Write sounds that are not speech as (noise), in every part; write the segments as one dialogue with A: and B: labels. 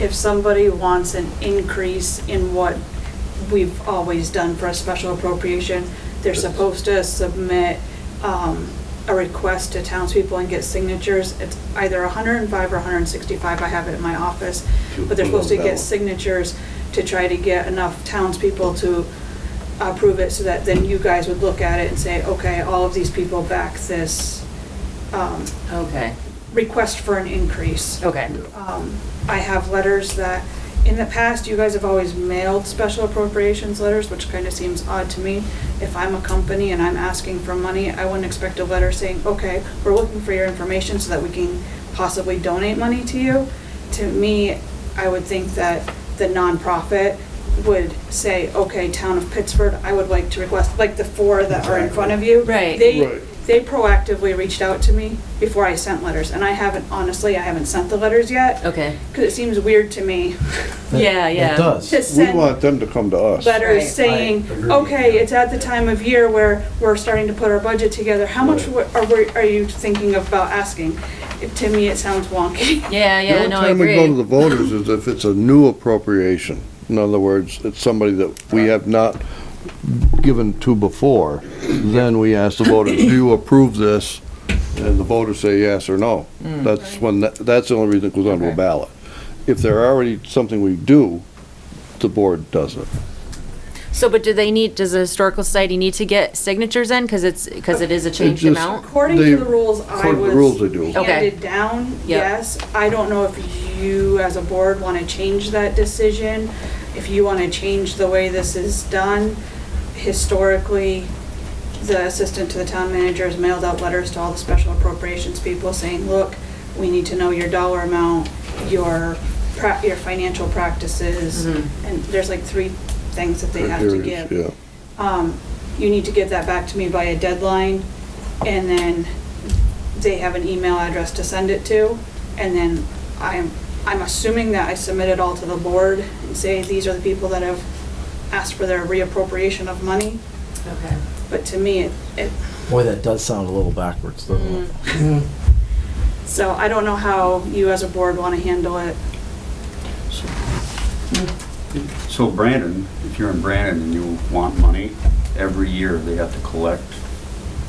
A: if somebody wants an increase in what we've always done for a special appropriation, they're supposed to submit um, a request to townspeople and get signatures. It's either 105 or 165, I have it in my office, but they're supposed to get signatures to try to get enough townspeople to approve it so that then you guys would look at it and say, okay, all of these people back this um,
B: Okay,
A: request for an increase.
B: okay.
A: Um, I have letters that, in the past, you guys have always mailed special appropriations letters, which kind of seems odd to me. If I'm a company and I'm asking for money, I wouldn't expect a letter saying, okay, we're looking for your information so that we can possibly donate money to you. To me, I would think that the nonprofit would say, okay, town of Pittsburgh, I would like to request, like the four that are in front of you.
B: Right.
A: They,
C: Right.
A: they proactively reached out to me before I sent letters, and I haven't, honestly, I haven't sent the letters yet.
B: Okay.
A: Because it seems weird to me (laughs)
D: That-
B: Yeah, yeah.
D: It does.
A: to
C: We
A: send
C: want them to come to us.
B: Right,
A: letters saying,
E: right. Agreed,
A: okay,
E: yeah.
A: it's at the time of year where we're starting to put our budget together, how much w- are, we- are you thinking about asking? It- To me, it sounds wonky.
B: Yeah, yeah, no, I
C: The only
B: agree.
C: time we go to the voters is if it's a new appropriation. In other words, it's somebody that we have not given to before, then we ask the voters, do you approve this? And the voters say yes or no. That's when, that- that's the only reason it goes onto a
B: Mm. Okay.
C: ballot. If they're already something we do, the board does it.
B: So, but do they need, does the historical society need to get signatures in? Cause it's, cause it is a changed
C: just-
B: amount?
A: According
C: They-
A: to the rules, I
C: according to the rules, they do.
A: was
C: Okay.
A: handed down,
B: Yep.
A: yes. I don't know if you, as a board, want to change that decision, if you want to change the way this is done. Historically, the assistant to the town manager has mailed out letters to all the special appropriations people saying, look, we need to know your dollar amount, your, pra- your financial practices. And there's like three things that they have to
C: Criteria,
A: give
C: Yeah.
A: um, you need to get that back to me by a deadline, and then they have an email address to send it to, and then I'm, I'm assuming that I submit it all to the board and say, these are the people that have asked for their reappropriation of money,
B: Okay.
A: but to me, it, it,
D: Boy, that does sound a little backwards, doesn't it?
B: Mm.
A: so I don't know how you as a board wanna handle it.
E: So Brandon, if you're in Brandon and you want money, every year they have to collect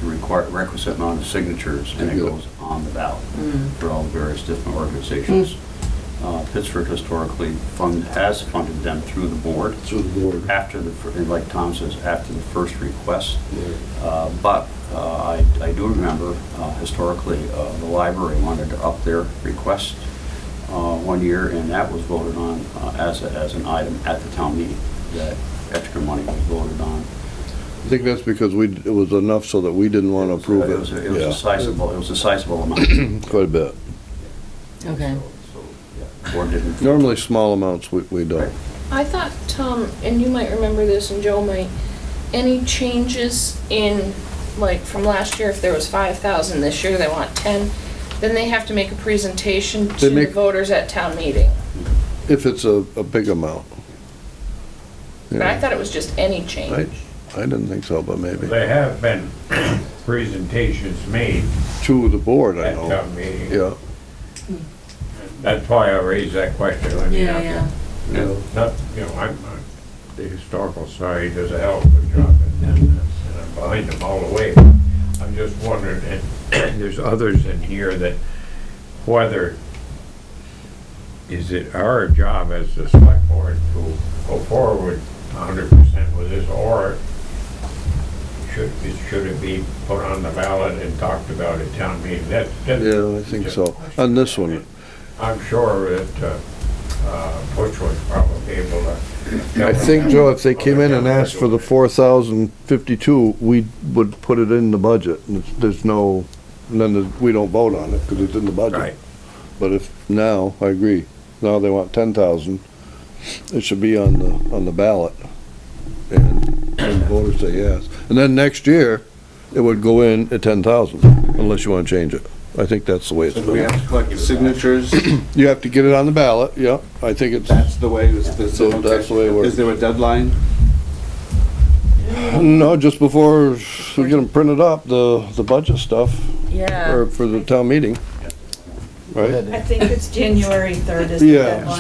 E: the requir- requisite amount of signatures, and it
C: Yeah.
E: goes on the ballot for all the various different organizations. Uh, Pittsburgh historically fund, has funded them through the board,
C: Through the board.
E: after the, fir- and like Tom says, after the first request. Uh, But uh, I I do remember uh, historically, uh, the library wanted to up their request uh, one year, and that was voted on uh, as, a- as an item at the town meeting, that extra money was voted on.
C: I think that's because we, it was enough so that we didn't want to approve
E: was
C: it.
E: a- It was
C: Yeah.
E: a sizable, it was a sizable amount.
C: Quite a bit.
B: Okay.
E: So, yeah, Board didn't.
C: Normally, small amounts, we, we don't.
F: I thought, Tom, and you might remember this and Joe might, any changes in, like, from last year, if there was five thousand, this year they want ten, then they have to make a presentation to
C: They
F: the
C: make-
F: voters at town meeting.
C: If it's a, a big amount.
F: But I
C: Yeah.
F: thought it was just any
C: I,
F: change.
C: I didn't think so, but maybe.
G: There have been (coughs) presentations made
C: To the board, I
G: at
C: know.
G: town meetings.
C: Yeah.
G: That's why I raised that question. I mean,
B: Yeah, yeah.
G: yeah. Not, you know, I'm, I'm- the historical society does a hell of a job and, and and I'm behind them all the way. I'm just wondering, and (clears throat) there's others in here that whether, is it our job as the select board to go forward hundred percent with this or should, it- should it be put on the ballot and talked about at town meeting? That's, that's.
C: Yeah, I think so. On this one,
G: I'm sure that uh, uh, Butch was probably able to.
C: I think, Joe, if they came in and asked for the four thousand fifty-two, we would put it in the budget. And it's- There's no, and then there's- we don't vote on it because it's in the
G: Right.
C: budget. But if, now, I agree. Now they want ten thousand. It should be on the, on the ballot. And and the voters say yes. And then next year, it would go in at ten thousand, unless you want to change it. I think that's the way it's.
H: We
C: been.
H: have to collect signatures,
C: You have to get it on the ballot, yeah. I think it's.
H: that's the way, this, this.
C: So that's the way it works.
H: Is there a deadline?
C: No, just before we get them printed up, the, the budget stuff,
B: Yeah.
C: or for the town meeting, right?
A: I think it's January third is (laughs)
C: the
A: the
C: Yeah.
A: deadline.
C: deadline.